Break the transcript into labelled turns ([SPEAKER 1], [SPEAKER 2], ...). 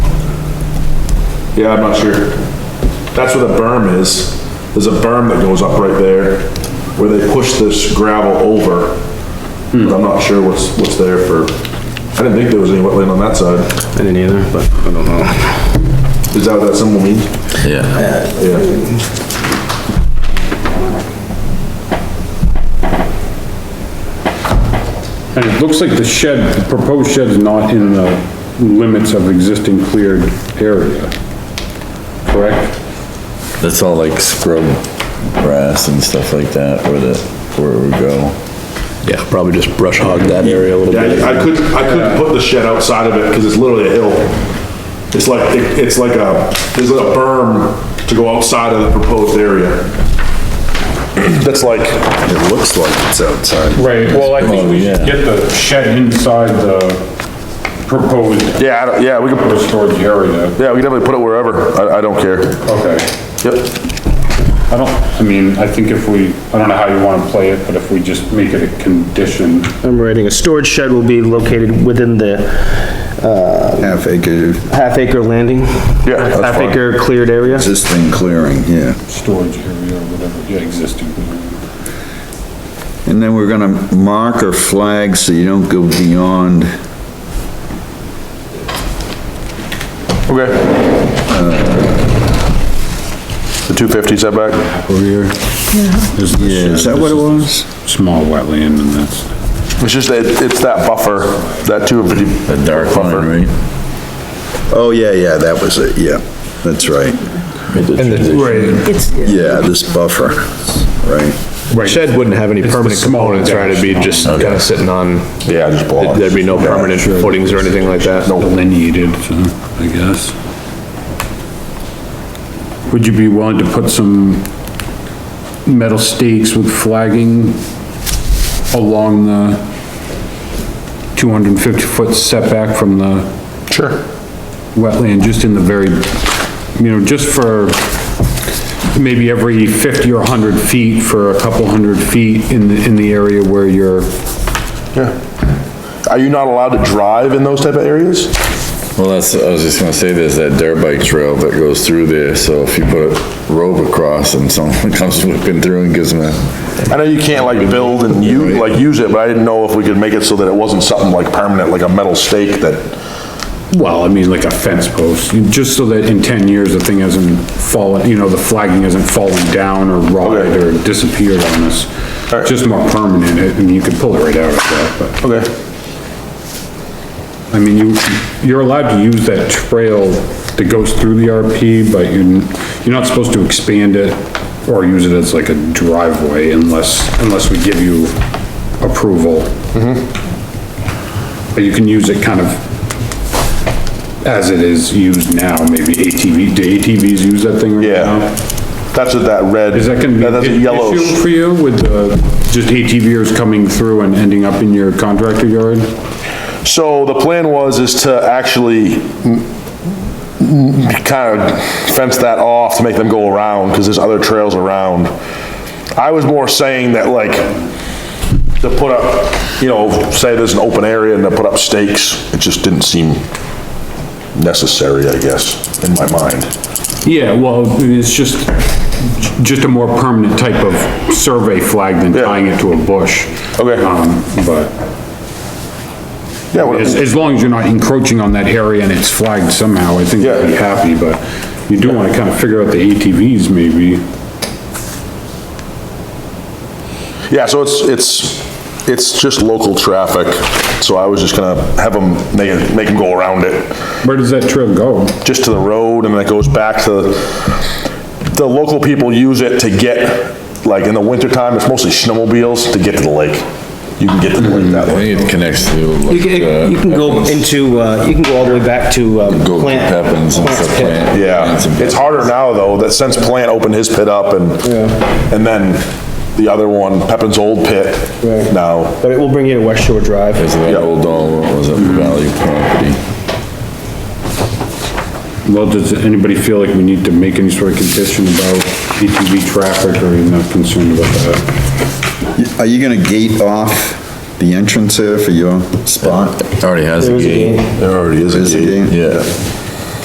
[SPEAKER 1] Yeah, I'm not sure. That's where the berm is. There's a berm that goes up right there where they push this gravel over. But I'm not sure what's, what's there for, I didn't think there was any wetland on that side.
[SPEAKER 2] I didn't either, but I don't know.
[SPEAKER 1] Is that what that symbol means?
[SPEAKER 3] Yeah,
[SPEAKER 1] Yeah.
[SPEAKER 4] And it looks like the shed, the proposed shed is not in the limits of existing cleared area, correct?
[SPEAKER 3] that's all like scrub grass and stuff like that where the, where it would go.
[SPEAKER 2] Yeah, probably just brush hog that area a little
[SPEAKER 1] Yeah,
[SPEAKER 2] bit.
[SPEAKER 1] I I could, I could put the shed outside of it because it's literally a hill. It's like, it- it's like a, there's a berm to go outside of the proposed area. That's like,
[SPEAKER 5] It looks like it's outside.
[SPEAKER 4] Right, well, I
[SPEAKER 3] think we
[SPEAKER 5] Oh,
[SPEAKER 3] should
[SPEAKER 4] get the shed inside the proposed
[SPEAKER 1] yeah, I don't- yeah, we could,
[SPEAKER 4] storage area,
[SPEAKER 1] yeah, we could definitely put it wherever. I, I don't care.
[SPEAKER 4] okay.
[SPEAKER 1] Yep.
[SPEAKER 4] I don't, I mean, I think if we, I don't know how you wanna play it, but if we just make it a condition,
[SPEAKER 6] I'm writing, a storage shed will be located within the
[SPEAKER 5] Half acre
[SPEAKER 6] half acre landing?
[SPEAKER 1] Yeah, that's
[SPEAKER 6] Half
[SPEAKER 1] fine.
[SPEAKER 6] acre cleared area?
[SPEAKER 5] existing clearing, yeah.
[SPEAKER 4] storage area or whatever, yeah, existing.
[SPEAKER 5] And then we're gonna mark or flag so you don't go beyond
[SPEAKER 1] Okay. Uh, The two fifty setback?
[SPEAKER 4] Rear. Yeah.
[SPEAKER 5] uh, Is that what it was?
[SPEAKER 4] Small wetland and that's.
[SPEAKER 1] It's just that, it's that buffer, that two fifty.
[SPEAKER 3] A dark line, right?
[SPEAKER 5] Oh, yeah, yeah, that was it, yeah, that's right.
[SPEAKER 3] And
[SPEAKER 7] It's,
[SPEAKER 5] Yeah, this buffer, right.
[SPEAKER 2] Shed wouldn't have any permanent
[SPEAKER 4] small
[SPEAKER 2] components, right? It'd be just kinda sitting on,
[SPEAKER 1] Yeah, just block.
[SPEAKER 2] there'd be no permanent footings or anything like that.
[SPEAKER 4] delineated, so, I guess. Would you be willing to put some metal stakes with flagging along the 250-foot setback from the? Sure. Wetland, just in the very, you know, just for maybe every 50 or 100 feet for a couple hundred feet in the, in the area where you're,
[SPEAKER 1] Are you not allowed to drive in those type of areas?
[SPEAKER 3] Well, that's, I was just gonna say, there's that dirt bike trail that goes through there, so if you put a rope across and someone comes whipping through and gives them a,
[SPEAKER 1] I know you can't like build and you, like use it, but I didn't know if we could make it so that it wasn't something like permanent, like a metal stake that,
[SPEAKER 4] Well, I mean, like a fence post, just so that in ten years, the thing hasn't fallen, you know, the flagging hasn't fallen down or rotted or disappeared on us.
[SPEAKER 1] Alright.
[SPEAKER 4] Just more permanent, I mean, you could pull it right out of that,
[SPEAKER 1] okay.
[SPEAKER 4] but, I mean, you, you're allowed to use that trail that goes through the RP, but you, you're not supposed to expand it or use it as like a driveway unless, unless we give you approval.
[SPEAKER 1] Mm-hmm.
[SPEAKER 4] But you can use it kind of as it is used now, maybe ATV, do ATVs use that thing right
[SPEAKER 1] Yeah.
[SPEAKER 4] now?
[SPEAKER 1] That's what that red.
[SPEAKER 4] Is that gonna be
[SPEAKER 1] That's a
[SPEAKER 4] an
[SPEAKER 1] yellow.
[SPEAKER 4] issue for you with, uh, just ATVers coming through and ending up in your contractor yard?
[SPEAKER 1] So the plan was is to actually kind of fence that off to make them go around, because there's other trails around. I was more saying that like, to put up, you know, say there's an open area and to put up stakes, it just didn't seem necessary, I guess, in my mind.
[SPEAKER 4] Yeah, well, it's just, just a more permanent type of survey flag than
[SPEAKER 1] Yeah.
[SPEAKER 4] tying it to a bush.
[SPEAKER 1] Okay.
[SPEAKER 4] Um, but
[SPEAKER 1] Yeah, what-
[SPEAKER 4] as, as long as you're not encroaching on that area and it's flagged somehow, I think I'd be
[SPEAKER 1] Yeah.
[SPEAKER 4] happy, but you do wanna kinda figure out the ATVs maybe.
[SPEAKER 1] yeah, so it's, it's, it's just local traffic, so I was just gonna have them, make it, make them go around it.
[SPEAKER 4] Where does that trail go?
[SPEAKER 1] just to the road, and then it goes back to, the local people use it to get, like, in the wintertime, it's mostly snowmobiles to get to the lake. You can get to the lake that
[SPEAKER 3] I
[SPEAKER 1] way.
[SPEAKER 3] think it connects to like. uh,
[SPEAKER 6] You can, you can go into, uh, you can go all the way back to, um,
[SPEAKER 3] Go to
[SPEAKER 6] plant.
[SPEAKER 3] Pepin's and
[SPEAKER 6] plant's
[SPEAKER 3] stuff,
[SPEAKER 6] pit.
[SPEAKER 3] plant.
[SPEAKER 1] Mm-hmm. Yeah,
[SPEAKER 3] plants and
[SPEAKER 1] it's harder now, though, that since Plant opened his pit up, and, and then the other one, Pepin's old pit now.
[SPEAKER 6] But it will bring you to West Shore Drive.
[SPEAKER 3] There's that old, all, what was it, Valley property?
[SPEAKER 4] Well, does anybody feel like we need to make any sort of condition about ATV traffic, or are you not concerned about that?
[SPEAKER 5] Are you gonna gate off the entrance here for your spot?
[SPEAKER 3] Already has a gate.
[SPEAKER 1] There already is
[SPEAKER 5] Is it gate?
[SPEAKER 3] Yeah.